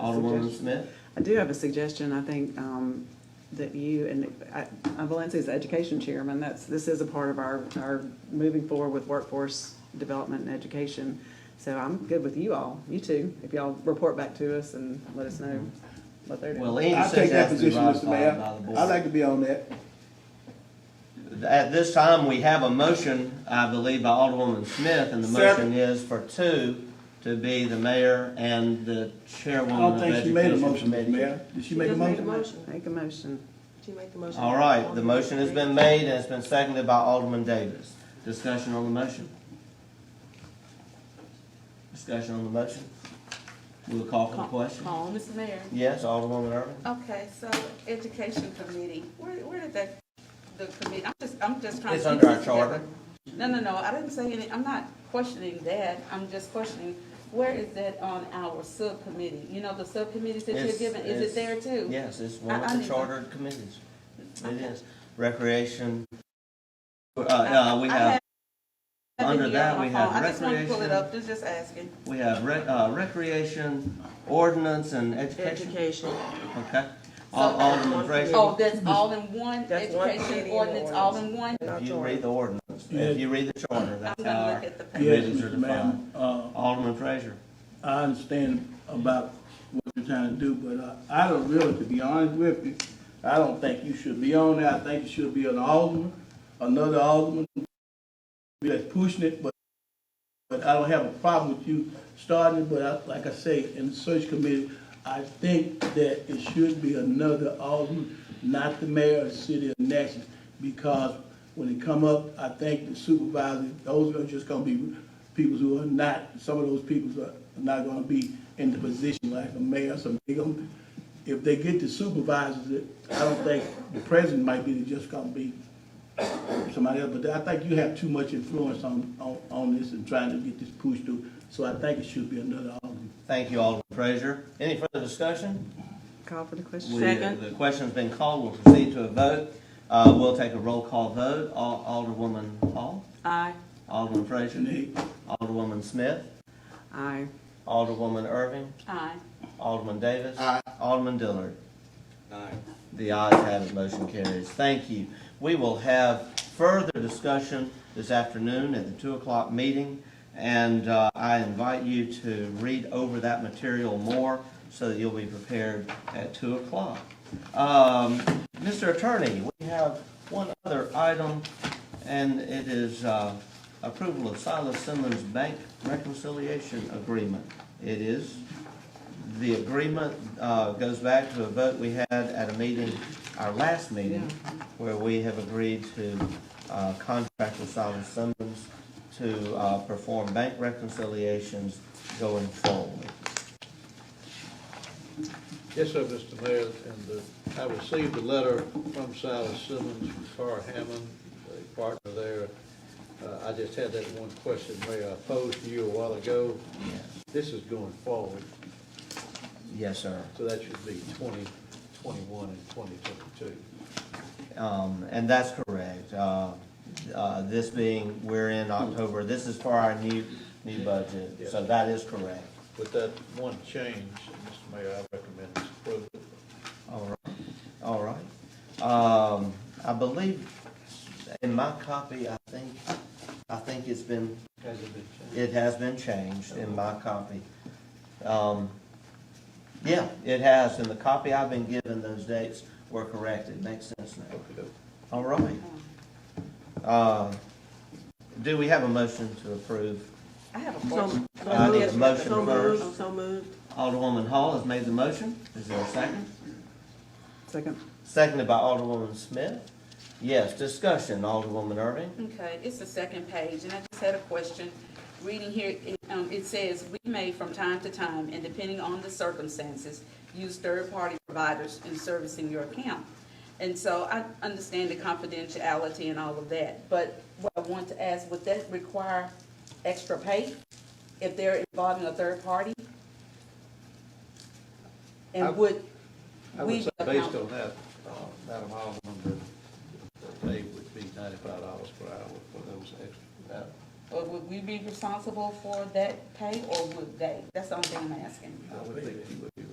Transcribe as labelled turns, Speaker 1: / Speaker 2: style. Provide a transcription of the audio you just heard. Speaker 1: Alderwoman Smith?
Speaker 2: I do have a suggestion, I think, um, that you and, uh, I, I'm Valencia's education chairman, that's, this is a part of our, our moving forward with workforce development and education. So I'm good with you all, you two, if y'all report back to us and let us know what they're
Speaker 1: Well,
Speaker 2: doing.
Speaker 1: Andy
Speaker 3: I
Speaker 1: says
Speaker 3: take
Speaker 1: it
Speaker 3: that
Speaker 1: has to be
Speaker 3: position,
Speaker 1: ratified
Speaker 3: Mr.
Speaker 1: by the
Speaker 3: Mayor.
Speaker 1: board.
Speaker 3: I'd like to be on that.
Speaker 1: At this time, we have a motion, I believe, by Alderwoman Smith, and the motion
Speaker 3: Second.
Speaker 1: is for two to be the mayor and the
Speaker 3: I
Speaker 1: chairwoman
Speaker 3: don't
Speaker 1: of
Speaker 3: think she made a
Speaker 1: Education
Speaker 3: motion, Mr.
Speaker 1: Committee.
Speaker 3: Mayor. Did she make a
Speaker 4: just made a
Speaker 3: motion?
Speaker 4: motion.
Speaker 2: Make a motion.
Speaker 4: She made the motion.
Speaker 1: All right, the motion has been made and it's been seconded by Alderman Davis. Discussion on the motion. Discussion on the motion. We'll call for the question.
Speaker 5: Call, Mr. Mayor.
Speaker 1: Yes, Alderwoman Irvin?
Speaker 4: Okay, so education committee, where, where did that, the committee, I'm just, I'm just trying to.
Speaker 1: It's under
Speaker 4: piece
Speaker 1: our
Speaker 4: it
Speaker 1: charter.
Speaker 4: together. No, no, no, I didn't say any, I'm not questioning that, I'm just questioning, where is that on our subcommittee? You know, the subcommittees that you're
Speaker 1: It's-
Speaker 4: given, is
Speaker 1: it's-
Speaker 4: it there too?
Speaker 1: Yes, it's one
Speaker 4: I- I
Speaker 1: of the
Speaker 4: need to-
Speaker 1: chartered committees. It
Speaker 4: Okay.
Speaker 1: is. Recreation, uh,
Speaker 4: I-
Speaker 1: uh, we
Speaker 4: I
Speaker 1: have
Speaker 4: have it
Speaker 1: Under
Speaker 4: here
Speaker 1: that,
Speaker 4: on my
Speaker 1: we have
Speaker 4: phone. I just wanna pull it
Speaker 1: recreation.
Speaker 4: up, just, just asking.
Speaker 1: We have rec- uh, recreation, ordinance, and education. Okay. Al- Alderman Fraser,
Speaker 4: Oh, that's all in one,
Speaker 5: That's one
Speaker 4: education
Speaker 5: committee and
Speaker 4: ordinance, all in one?
Speaker 1: if you read the ordinance, if you read the charter, that's
Speaker 4: I'm
Speaker 1: how
Speaker 4: gonna
Speaker 1: our
Speaker 4: look at the page.
Speaker 3: Yes,
Speaker 1: committees are
Speaker 3: Mr.
Speaker 1: defined.
Speaker 3: Mayor. Uh,
Speaker 1: Alderman Fraser.
Speaker 3: I understand about what you're trying to do, but uh, I don't really, to be honest with you, I don't think you should be on there. I think you should be an alderman, another alderman that's pushing it, but, but I don't have a problem with you starting, it. but I, like I say, in the search committee, I think that it should be another alderman, not the mayor of the city of Natchez, because when it come up, I think the supervisors, those are just gonna be people who are not, some of those people are not gonna be in the position like a mayor, so they gonna, if they get the supervisors, I don't think the president might be just gonna be somebody else, but I think you have too much influence on, on, on this and trying to get this pushed through, so I think it should be another Alderman.
Speaker 1: Thank you, Alderman Fraser. Any further discussion?
Speaker 2: Call for the question.
Speaker 1: We- uh, The question's been called. We'll proceed to a vote. Uh, We'll take a roll call vote. Al- Alderwoman Hall,
Speaker 5: Aye.
Speaker 1: Alderman Fraser,
Speaker 3: Nay.
Speaker 1: Alderwoman Smith,
Speaker 2: Aye.
Speaker 1: Alderwoman Irving,
Speaker 5: Aye.
Speaker 1: Alderman Davis. Alderman Dillard. The ayes have it, motion carries. Thank you. We will have further discussion this afternoon at the two o'clock meeting, and uh, I invite you to read over that material more so that you'll be prepared at two o'clock. Um, Mr. Attorney, we have one other item, and it is uh, approval of Silas Simmons Bank Reconciliation Agreement. It is the agreement uh, goes back to a vote we had at a meeting, our last meeting, where we have agreed to uh, contract with Solomon Simmons to uh, perform bank reconciliations going forward.
Speaker 6: Yes, sir, Mr. Mayor, and uh, I received a letter from Silas Simmons, from Carr Hammond, a partner there. Uh, I just had that one question, Mayor, I posed to you a while ago. This is going forward,
Speaker 1: Yes, sir.
Speaker 6: so that should be twenty twenty-one and twenty twenty-two.
Speaker 1: Um, And that's correct. Uh, uh, This being, we're in October, this is for our new, new budget, so that is correct.
Speaker 6: With that one change, Mr. Mayor, I recommend this approval.
Speaker 1: All right, all right. Um, I believe in my copy, I think, I think it's been,
Speaker 6: Has it been changed?
Speaker 1: it has been changed in my copy. Um, yeah, it has, and the copy I've been given, those dates were correct. It makes sense now.
Speaker 6: Okey-doke.
Speaker 1: All right. Uh, do we have a motion to approve?
Speaker 4: I have a
Speaker 5: So,
Speaker 4: question.
Speaker 1: I need a motion
Speaker 5: so moved,
Speaker 1: first.
Speaker 5: so moved.
Speaker 1: Alderwoman Hall has made the motion. Is there a second?
Speaker 2: Second.
Speaker 1: Seconded by Alderwoman Smith. Yes, discussion, Alderwoman Irving.
Speaker 4: Okay, it's the second page, and I just had a question. Reading here, it, um, it says, "We may from time to time, and depending on the circumstances, use third-party providers in servicing your account." And so I understand the confidentiality and all of that, but what I want to ask, would that require extra pay if they're involving a third party?
Speaker 6: I-
Speaker 4: And would,
Speaker 6: I
Speaker 4: We
Speaker 6: would say, based
Speaker 4: account-
Speaker 6: on that, uh, Madam Alderman, that the pay would be ninety-five dollars per hour for those extra,
Speaker 4: or would we be responsible for that pay, or would they? That's the only thing I'm asking.
Speaker 6: I would think you would